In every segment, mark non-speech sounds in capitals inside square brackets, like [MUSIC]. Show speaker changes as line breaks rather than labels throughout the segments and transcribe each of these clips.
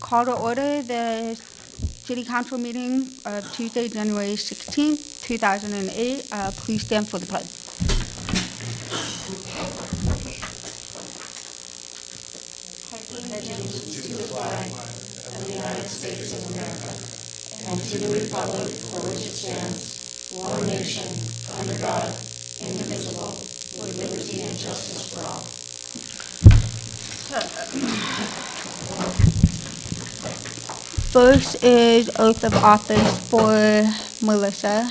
Call to order the city council meeting of Tuesday, January 16, 2008. Uh, Please stand for the pledge. First is oath of office for Melissa.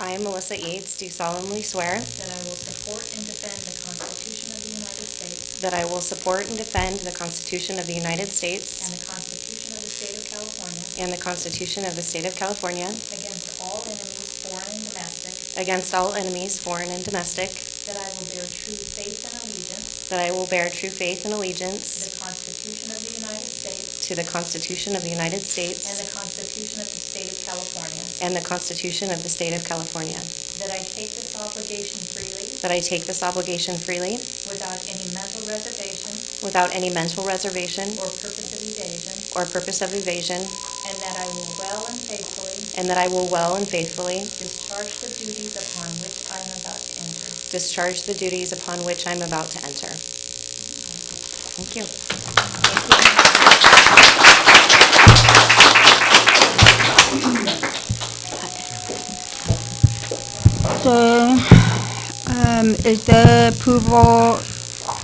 I, Melissa Eads, do solemnly swear
That I will support and defend the Constitution of the United States
that I will support and defend the Constitution of the United
and
States
the Constitution of the State of California
and the Constitution of the State of California
against all enemies, foreign and domestic,
against all enemies, foreign and domestic,
that I will bear true faith and allegiance
that I will bear true faith and
to the
allegiance
Constitution of the United States
to the Constitution of the United
and
States
the Constitution of the State of California,
and the Constitution of the State of California,
that I take this obligation freely
that I take this obligation freely
without any mental reservation
without any mental reservation
or purpose of evasion,
or purpose of evasion,
and that I will well and faithfully
and that I will well and faithfully
discharge the duties upon which I am about to enter.
discharge the duties upon which I am about to enter. Thank you.
So, um, is there approval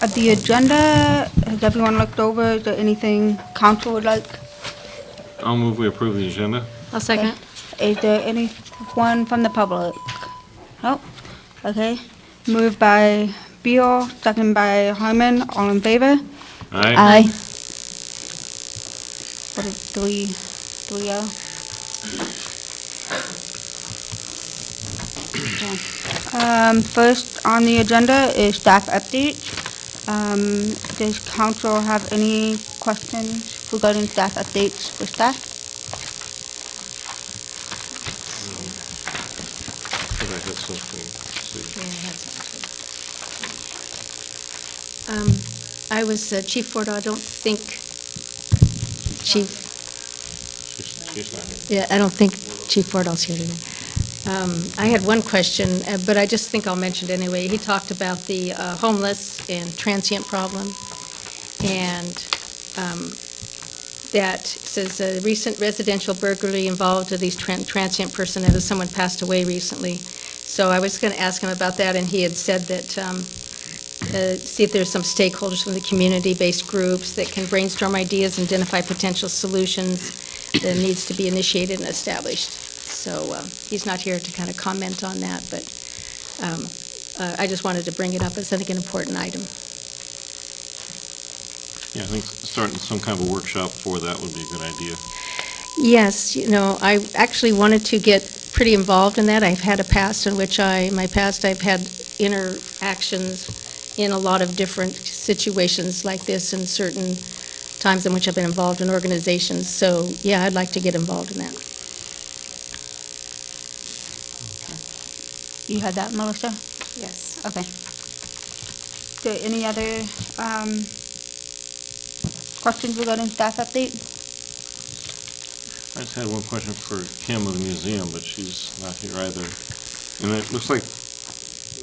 of the agenda? Has everyone looked over? Is there anything council would like?
I'll move we approve the agenda.
I'll second.
Is there anyone from the public? No? Okay. Moved by Beal, second by Harmon, all in favor?
Aye.
What is three, three oh? Um, first on the agenda is staff updates. Um, does council have any questions regarding staff updates for staff?
Did I hit something?
Um, I was uh, Chief Ford, I don't think Chief,
See, she's- she's not here.
yeah, I don't think Chief Fordall's here today. Um, I had one question, uh, but I just think I'll mention it anyway. He talked about the uh, homeless and transient problem, and um, that says a recent residential burglary involved of these tran- transient person, and someone passed away recently. So I was going to ask him about that, and he had said that um, uh, see if there's some stakeholders from the community-based groups that can brainstorm ideas and identify potential solutions that needs to be initiated and established. So um, he's not here to kind of comment on that, but um, uh, I just wanted to bring it up as, I think, an important item.
Yeah, I think starting some kind of a workshop for that would be a good idea.
Yes, you know, I actually wanted to get pretty involved in that. I've had a past in which I, my past, I've had interactions in a lot of different situations like this and certain times in which I've been involved in organizations. So, yeah, I'd like to get involved in that.
You had that, Melissa?
Yes.
Okay. Is there any other um, questions regarding staff update?
I just had one question for Kim of the museum, but she's not here either. And it looks like,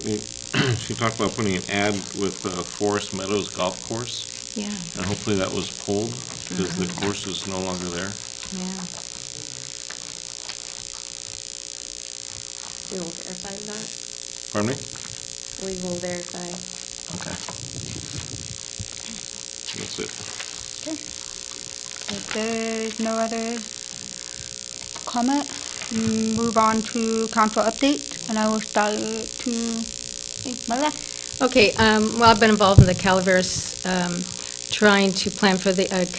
we- [CLEARS THROAT] she talked about putting an ad with uh, Forest Meadows Golf Course,
Yeah,
and hopefully that was pulled, because the course is no longer there.
yeah.
We will verify that.
Pardon me?
We will verify.
Okay. That's it.
If there's no other comment, move on to council update, and I will start to Melissa.
Okay, um, well, I've been involved in the Calaveras, um, trying to plan for the uh,